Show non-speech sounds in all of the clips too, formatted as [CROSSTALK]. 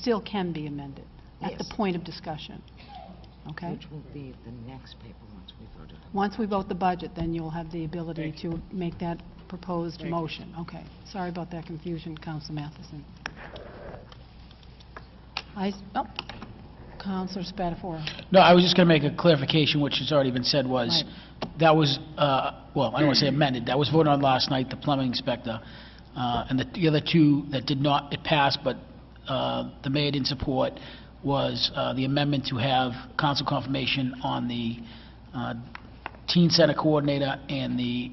still can be amended at the Yes. point of discussion, okay? Which will be the next paper once we vote on. Once we vote the budget, then you'll have the ability Thank to make that proposed Thank you. motion. Okay. Sorry about that confusion, Counsel Matheson. I, s- oh, Counselor Spatafora. No, I was just going to make a clarification, which has already been said, was, that was, uh, well, I don't want to say amended, that was voted on last night, the plumbing inspector, uh, and the the other two that did not, it passed, but uh, the mayor didn't support, was uh, the amendment to have council confirmation on the uh, teen center coordinator and the,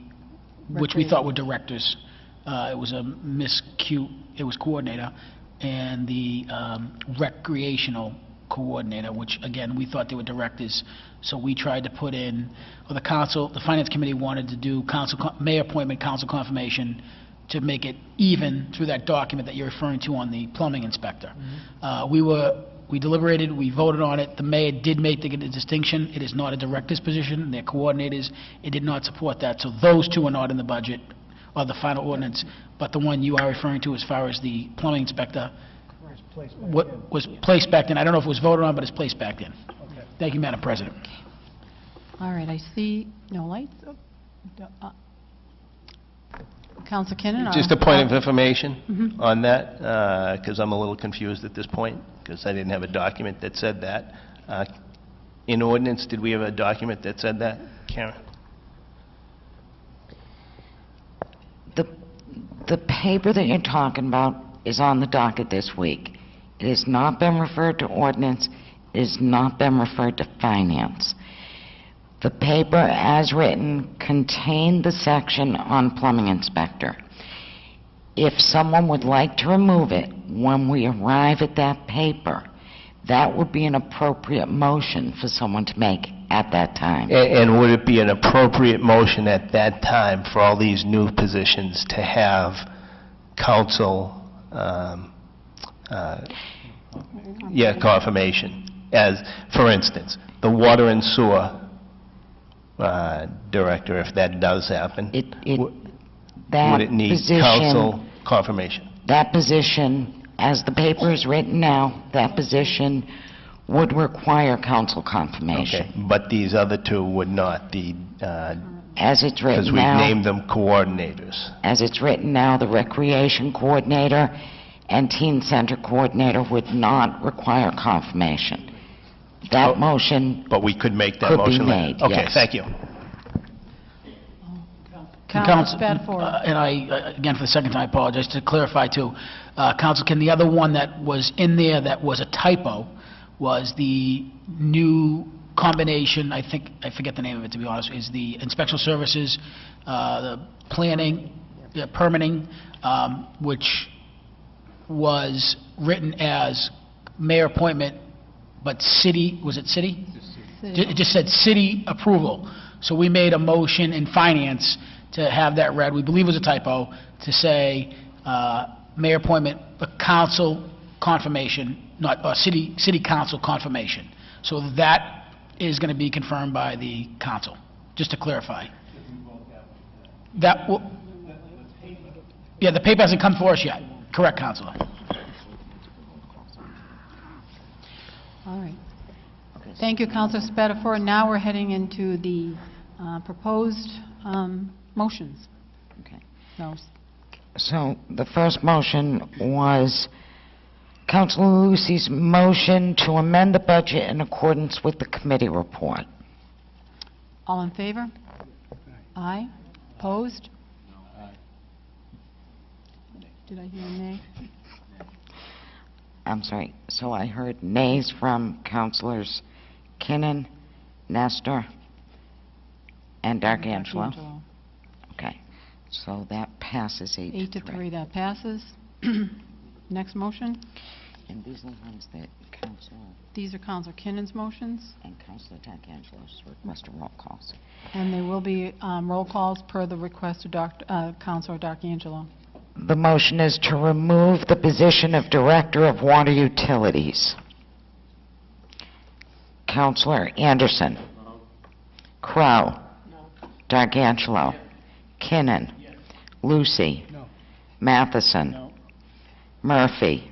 which we thought were directors. Uh, It was a miscue, it was coordinator, and the um, recreational coordinator, which, again, we thought they were directors. So we tried to put in, or the council, the finance committee wanted to do council, co- mayor appointment, council confirmation, to make it even through that document that you're referring to on the plumbing inspector. Uh, We were, we deliberated, we voted on it, the mayor did make the distinction, it is not a director's position, they're coordinators, it did not support that, so those two are not in the budget, or the final ordinance, but the one you are referring to as far as the plumbing inspector, what was placed back in, I don't know if it was voted on, but it's placed back in. Thank you, Madam President. All right, I see no lights. Oh, d- uh, Counselor Kinnon? uh, Just a I'll- point of information on that, because I'm a little confused at this point, because I didn't have a document that said that. Uh, In ordinance, did we have a document that said that, Karen? The, the paper that you're talking about is on the docket this week. It has not been referred to ordinance, it has not been referred to finance. The paper as written contained the section on plumbing inspector. If someone would like to remove it when we arrive at that paper, that would be an appropriate motion for someone to make at that time. A- And would it be an appropriate motion at that time for all these new positions to have council, um, uh, yeah, confirmation? As, for instance, the water and sewer uh, director, if that does happen. It, it, Would- that Would it need council position, confirmation? that position, as the paper is written now, that position would require council Okay, confirmation. but these other two would not, the, As it's because written we've now, named them coordinators. as it's written now, the recreation coordinator and teen center coordinator would not require confirmation. Oh. That motion, But we could make that Could be motion later. made, Okay, yes. thank you. Counselor Uh, Spatafora. And I, uh, again, for the second time, I apologize, to clarify too, uh, Counsel Ken, the other one that was in there that was a typo was the new combination, I think, I forget the name of it, to be honest, is the inspection services, uh, the planning, yeah, permitting, um, which was written as mayor appointment, but city, was it city? Ju- It just said city approval. So we made a motion in finance to have that read, we believe it was a typo, to say uh, mayor appointment, but council confirmation, not, uh city, city council confirmation. So that is going to be confirmed by the council, just to clarify. That, will- yeah, the paper hasn't come for us yet. Correct, Counselor. All right. Thank you, Counselor Spatafora. Now we're heading into the uh, proposed um, motions. Okay. No, so the first motion was Councilor Lucy's motion to amend the budget in accordance with the committee report. All in favor? Aye. Opposed? Did I hear a nay? I'm sorry, so I heard nays from Councilors Kinnon, Nestor, and D'Arcangelo. D'Angelo. Okay, so that passes eight to three. Eight to three, that passes. [CLEARS THROAT] Next motion. And these are the ones that Councilor These are Counselor Kinnon's motions, and Councilor D'Arcangelo's request roll calls. and they will be um, roll calls per the request of Doc- uh, Counselor D'Angelo. The motion is to remove the position of Director of Water Utilities. Counselor Anderson. Crow. D'Arcangelo. Kinnon. Lucy. Matheson. Murphy.